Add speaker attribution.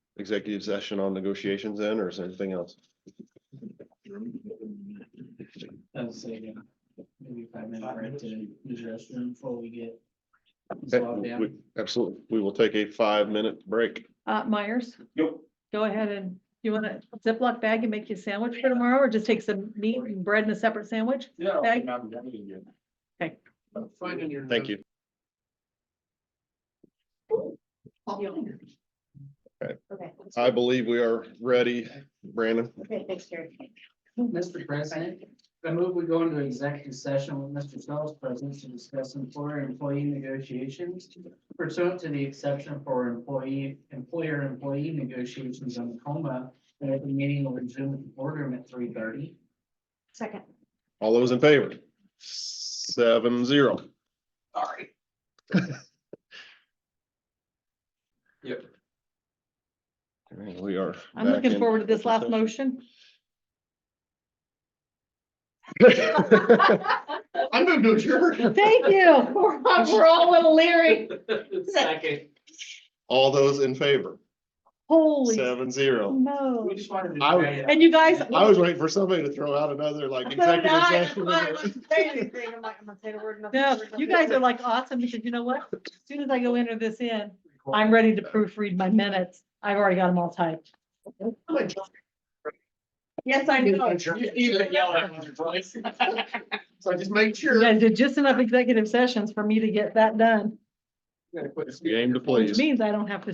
Speaker 1: executive session on negotiations then, or is there anything else?
Speaker 2: I'd say, uh, maybe five minutes break to use the restroom before we get. slogged
Speaker 1: Okay,
Speaker 2: down.
Speaker 1: we- Absolutely. We will take a five-minute break.
Speaker 3: Uh, Myers,
Speaker 1: Yep.
Speaker 3: go ahead and, you want a Ziploc bag and make you a sandwich for tomorrow, or just take some meat and bread and a separate sandwich?
Speaker 4: Yeah.
Speaker 3: Okay. Okay.
Speaker 1: Thank you.
Speaker 5: Okay.
Speaker 1: I believe we are ready. Brandon,
Speaker 5: Okay, thanks, Jerry.
Speaker 2: Mr. President, I move we go into executive session with Mr. Sells present to discuss employer employee negotiations pursuant to the exception for employee, employer employee negotiations on Tacoma. And at the meeting will resume at the boardroom at three thirty.
Speaker 5: Second.
Speaker 1: all those in favor? Seven zero.
Speaker 4: Sorry.
Speaker 1: We are.
Speaker 3: I'm
Speaker 1: back
Speaker 3: looking
Speaker 1: in
Speaker 3: forward to this last
Speaker 1: open
Speaker 3: motion.
Speaker 1: session.
Speaker 4: I'm gonna do your.
Speaker 3: Thank you. We're all- we're all a little leery.
Speaker 4: Second.
Speaker 1: All those in favor?
Speaker 3: Holy
Speaker 1: Seven zero.
Speaker 3: no.
Speaker 4: We just wanted
Speaker 1: I would-
Speaker 4: to.
Speaker 3: And you guys.
Speaker 1: I was waiting for somebody to throw out another like
Speaker 3: So did
Speaker 1: executive
Speaker 3: I.
Speaker 1: session.
Speaker 3: I wasn't saying anything.
Speaker 5: I'm like, I'm not saying a word. nothing,
Speaker 3: No,
Speaker 5: nothing,
Speaker 3: you
Speaker 5: nothing.
Speaker 3: guys are like awesome because you know what? As soon as I go enter this in, I'm ready to proofread my minutes. I've already got them all typed. Yes, I do.
Speaker 4: You either yell at me twice. So I just make
Speaker 3: You
Speaker 4: sure.
Speaker 3: guys did just enough executive sessions for me to get that done,
Speaker 4: Gotta quit this
Speaker 1: Game to
Speaker 3: which
Speaker 1: please.
Speaker 3: means I don't have to